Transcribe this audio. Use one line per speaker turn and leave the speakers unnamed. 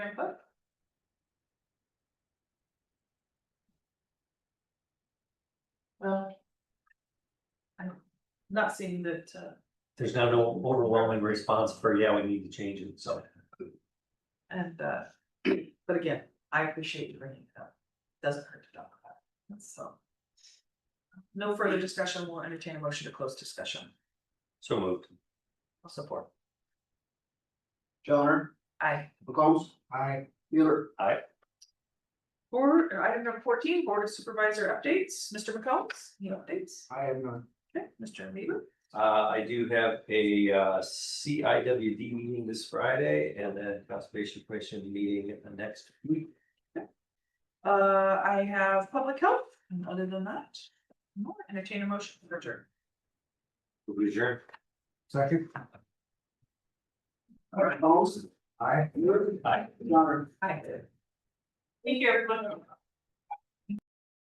not seeing that, uh,
There's not no overwhelming response for, yeah, we need to change it, so.
and, uh, but again, I appreciate you bringing it up. Doesn't hurt to talk about it, so. No further discussion, we'll entertain a motion to close discussion,
So moved.
I'll support,
Johnner,
aye.
McCombs. Aye. Mueller.
Board, or item number fourteen, Board of Supervisor updates, Mr. McCombs, any updates?
I have none.
Okay, Mr. Weaver,
Uh, I do have a uh C I W D meeting this Friday and a conservation commission meeting next week.
uh, I have public health, and other than that, no, entertain a motion for adjourn.
Will adjourn.
Second. McCombs. Aye. Mueller.
Aye.
Johnner.
Aye. Thank you, everyone.